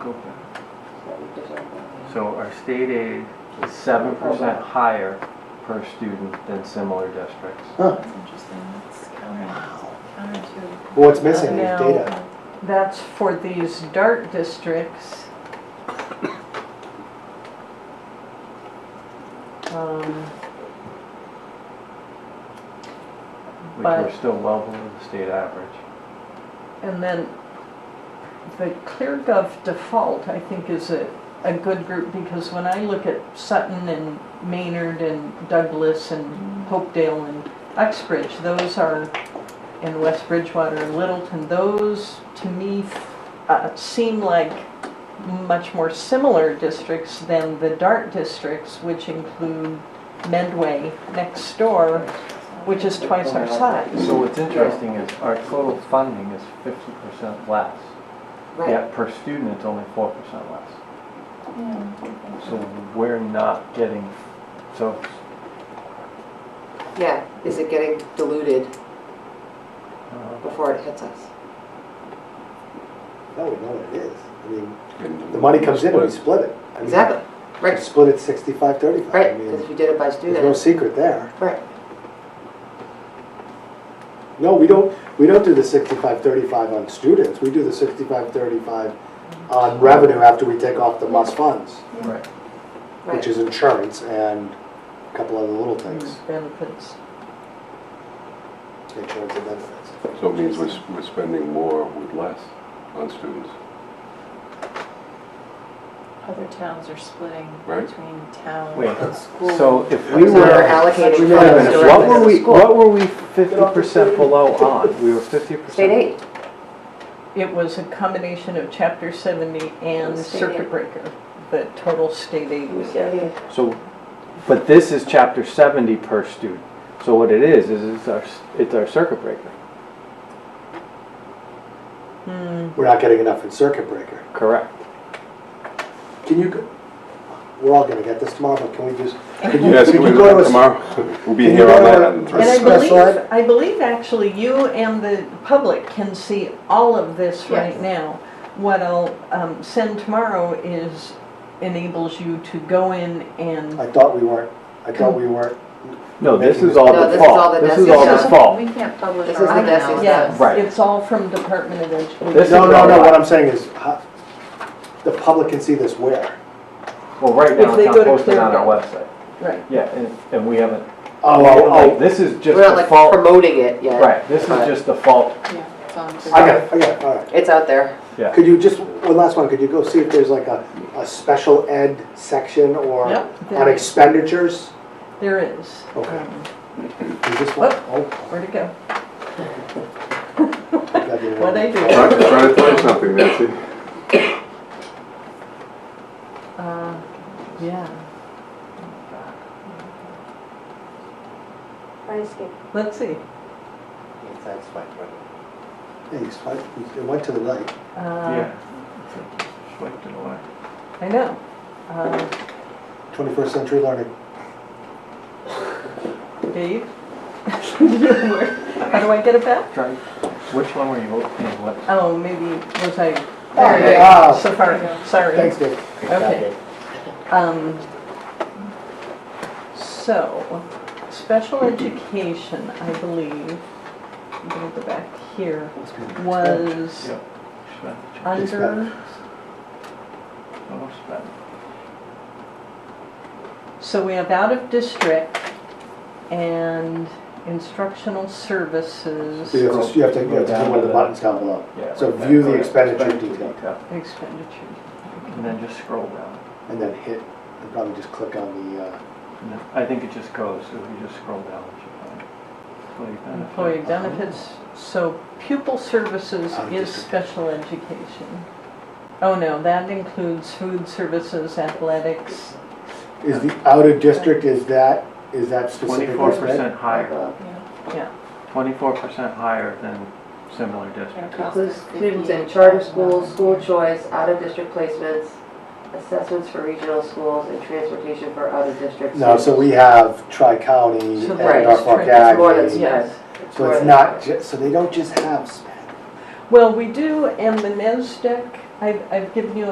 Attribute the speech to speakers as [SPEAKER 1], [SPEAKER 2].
[SPEAKER 1] Okay.
[SPEAKER 2] So
[SPEAKER 3] So our state aid is seven percent higher per student than similar districts.
[SPEAKER 4] That's interesting, that's counter, counterintuitive.
[SPEAKER 5] Well, What's missing is
[SPEAKER 6] Now-
[SPEAKER 5] data.
[SPEAKER 6] That's for these DART districts. Um,
[SPEAKER 3] Which
[SPEAKER 6] But-
[SPEAKER 3] are still well below the state average.
[SPEAKER 6] And then the ClearGov default, I think, is a, a good group because when I look at Sutton and Maynard and Douglas and Hopedale and Uxbridge, those are, in West Bridgewater and Littleton, those to me uh, seem like much more similar districts than the DART districts, which include Medway next door, which is twice our size.
[SPEAKER 3] So what's interesting is our total funding is fifty percent less, yet per student it's only four percent less.
[SPEAKER 4] Yeah.
[SPEAKER 3] So we're not getting, so
[SPEAKER 2] Yeah, is it getting diluted
[SPEAKER 3] uh,
[SPEAKER 2] before it hits us?
[SPEAKER 5] No, we know what it is. I mean,
[SPEAKER 1] Couldn't-
[SPEAKER 5] the money comes in and we split it. I mean,
[SPEAKER 2] Exactly, right,
[SPEAKER 5] Split it sixty-five, thirty-five. I
[SPEAKER 2] right,
[SPEAKER 5] mean,
[SPEAKER 2] because if you did it by
[SPEAKER 5] There's no
[SPEAKER 2] student,
[SPEAKER 5] secret there.
[SPEAKER 2] right,
[SPEAKER 5] No, we don't, we don't do the sixty-five, thirty-five on students. We do the sixty-five, thirty-five on revenue after we take off the must funds,
[SPEAKER 3] right.
[SPEAKER 5] which
[SPEAKER 2] right.
[SPEAKER 5] is insurance and a couple other little things,
[SPEAKER 6] Mm, Benefits.
[SPEAKER 2] Mm-hmm.
[SPEAKER 5] insurance and benefits.
[SPEAKER 1] So it means we're, s- we're spending more with less on students.
[SPEAKER 4] Other towns are splitting
[SPEAKER 1] Right.
[SPEAKER 4] between town
[SPEAKER 3] Wait,
[SPEAKER 4] and school.
[SPEAKER 3] so if we
[SPEAKER 2] So we're
[SPEAKER 3] were,
[SPEAKER 2] allocating
[SPEAKER 5] Wait a minute,
[SPEAKER 2] funds
[SPEAKER 3] what were
[SPEAKER 2] directly
[SPEAKER 3] we,
[SPEAKER 2] to school.
[SPEAKER 3] what were we fifty percent below on? We were fifty percent.
[SPEAKER 2] State aid,
[SPEAKER 6] It was a combination of chapter seventy and
[SPEAKER 4] State
[SPEAKER 6] circuit
[SPEAKER 4] aid.
[SPEAKER 6] breaker, the total state aid we get.
[SPEAKER 3] So, but this is chapter seventy per student. So what it is, is it's our, it's our circuit breaker,
[SPEAKER 6] Hmm,
[SPEAKER 5] We're not getting enough in circuit breaker.
[SPEAKER 3] correct?
[SPEAKER 5] Can you, go- we're all gonna get this tomorrow, but can we just, can you,
[SPEAKER 1] Yes,
[SPEAKER 5] could
[SPEAKER 1] can we
[SPEAKER 5] you
[SPEAKER 1] do
[SPEAKER 5] go
[SPEAKER 1] that
[SPEAKER 5] to a
[SPEAKER 1] tomorrow? We'll be
[SPEAKER 5] Can
[SPEAKER 1] here
[SPEAKER 5] you
[SPEAKER 1] all
[SPEAKER 5] go
[SPEAKER 1] night
[SPEAKER 5] to-
[SPEAKER 1] on the
[SPEAKER 6] And
[SPEAKER 1] three.
[SPEAKER 6] I
[SPEAKER 5] Let's
[SPEAKER 6] believe,
[SPEAKER 5] slide.
[SPEAKER 6] I believe actually you and the public can see all of this right
[SPEAKER 4] Yes.
[SPEAKER 6] now. What I'll um, send tomorrow is enables you to go in and,
[SPEAKER 5] I thought we weren't, I thought we weren't.
[SPEAKER 3] No, this
[SPEAKER 5] Making
[SPEAKER 3] is all
[SPEAKER 2] No, this
[SPEAKER 3] the
[SPEAKER 2] is all
[SPEAKER 3] fault.
[SPEAKER 2] the
[SPEAKER 3] This is
[SPEAKER 2] Desi's
[SPEAKER 3] all the
[SPEAKER 4] So
[SPEAKER 3] fault.
[SPEAKER 4] We can't publish
[SPEAKER 2] This
[SPEAKER 4] our
[SPEAKER 2] is the
[SPEAKER 4] own
[SPEAKER 2] best
[SPEAKER 4] analysis.
[SPEAKER 6] yeah,
[SPEAKER 2] Yes.
[SPEAKER 3] Right.
[SPEAKER 6] it's all from Department of
[SPEAKER 3] This
[SPEAKER 6] Education.
[SPEAKER 5] No,
[SPEAKER 3] is
[SPEAKER 5] no,
[SPEAKER 3] all
[SPEAKER 5] no,
[SPEAKER 3] right.
[SPEAKER 5] what I'm saying is, how- the public can see this where?
[SPEAKER 3] Well, right
[SPEAKER 6] If
[SPEAKER 3] now,
[SPEAKER 6] they
[SPEAKER 3] it's not
[SPEAKER 6] go to
[SPEAKER 3] posted on our
[SPEAKER 6] Clearwater.
[SPEAKER 3] website.
[SPEAKER 6] Right,
[SPEAKER 3] Yeah, and, and we haven't,
[SPEAKER 5] Oh,
[SPEAKER 3] like,
[SPEAKER 5] oh,
[SPEAKER 3] this is just
[SPEAKER 2] we're not
[SPEAKER 3] the
[SPEAKER 2] like
[SPEAKER 3] fault,
[SPEAKER 2] promoting it yet.
[SPEAKER 3] right, this is
[SPEAKER 2] but
[SPEAKER 3] just the fault,
[SPEAKER 4] Yeah, it's on
[SPEAKER 5] oh,
[SPEAKER 4] the-
[SPEAKER 5] I got it, I got it, all right.
[SPEAKER 2] It's out there,
[SPEAKER 3] yeah.
[SPEAKER 5] Could you just, one last one, could you go see if there's like a, a special ed section or
[SPEAKER 6] Yep.
[SPEAKER 5] on expenditures?
[SPEAKER 6] there is.
[SPEAKER 5] Okay.
[SPEAKER 6] Um,
[SPEAKER 5] You just want-
[SPEAKER 6] Where'd it go?
[SPEAKER 5] oh, that'd be
[SPEAKER 6] What'd I do?
[SPEAKER 1] Try try to find something, Nancy.
[SPEAKER 6] Uh, Yeah. Let's see.
[SPEAKER 5] Yeah, you swiped, it went to the right.
[SPEAKER 6] Uh,
[SPEAKER 3] Swiped it away.
[SPEAKER 6] I know. Uh,
[SPEAKER 5] Twenty-first century learning.
[SPEAKER 6] Dave? How do I get it back?
[SPEAKER 3] Try, which one were you opening, what?
[SPEAKER 6] Oh, maybe was I,
[SPEAKER 5] Okay,
[SPEAKER 6] there
[SPEAKER 5] ah,
[SPEAKER 6] so far, sorry.
[SPEAKER 5] Thanks, Dave.
[SPEAKER 6] Okay. Um, so, special education, I believe, I'm gonna go back here, was
[SPEAKER 3] Yep.
[SPEAKER 6] Uh,
[SPEAKER 3] Spend.
[SPEAKER 6] under,
[SPEAKER 3] Oh, spend.
[SPEAKER 6] so we have out of district and instructional services.
[SPEAKER 5] So you have to, you have to, you have to do one of the buttons down below.
[SPEAKER 3] Yeah,
[SPEAKER 5] So
[SPEAKER 3] right
[SPEAKER 5] view
[SPEAKER 3] there,
[SPEAKER 5] the
[SPEAKER 3] correct.
[SPEAKER 5] expenditure
[SPEAKER 3] Expenditure
[SPEAKER 5] detail.
[SPEAKER 6] Expenditure.
[SPEAKER 3] And then just scroll down.
[SPEAKER 5] and then hit, and probably just click on the, uh,
[SPEAKER 3] And then- I think it just goes, so if you just scroll down, it should find. Employee benefit.
[SPEAKER 6] Employee benefits, so pupil services
[SPEAKER 5] Out of
[SPEAKER 6] is
[SPEAKER 5] district.
[SPEAKER 6] special education. Oh, no, that includes food services, athletics.
[SPEAKER 5] is the out of district, is that, is that specific?
[SPEAKER 3] Twenty-four percent higher,
[SPEAKER 5] Uh,
[SPEAKER 4] Yeah,
[SPEAKER 3] twenty-four percent higher than similar
[SPEAKER 4] and it
[SPEAKER 3] districts.
[SPEAKER 4] costs
[SPEAKER 2] includes
[SPEAKER 4] us
[SPEAKER 2] students in
[SPEAKER 4] 58.
[SPEAKER 2] charter schools, school choice, out-of-district placements, assessments for regional schools, and transportation for out-of-district.
[SPEAKER 5] No, so we have tri-county
[SPEAKER 6] So
[SPEAKER 5] and
[SPEAKER 2] right,
[SPEAKER 5] North Fork
[SPEAKER 6] it's
[SPEAKER 5] Aggie.
[SPEAKER 2] more than- yeah.
[SPEAKER 6] Yes.
[SPEAKER 5] So it's not, ju- so they don't just have sped.
[SPEAKER 6] Well, we do, and the NESDEC, E I've, I've given you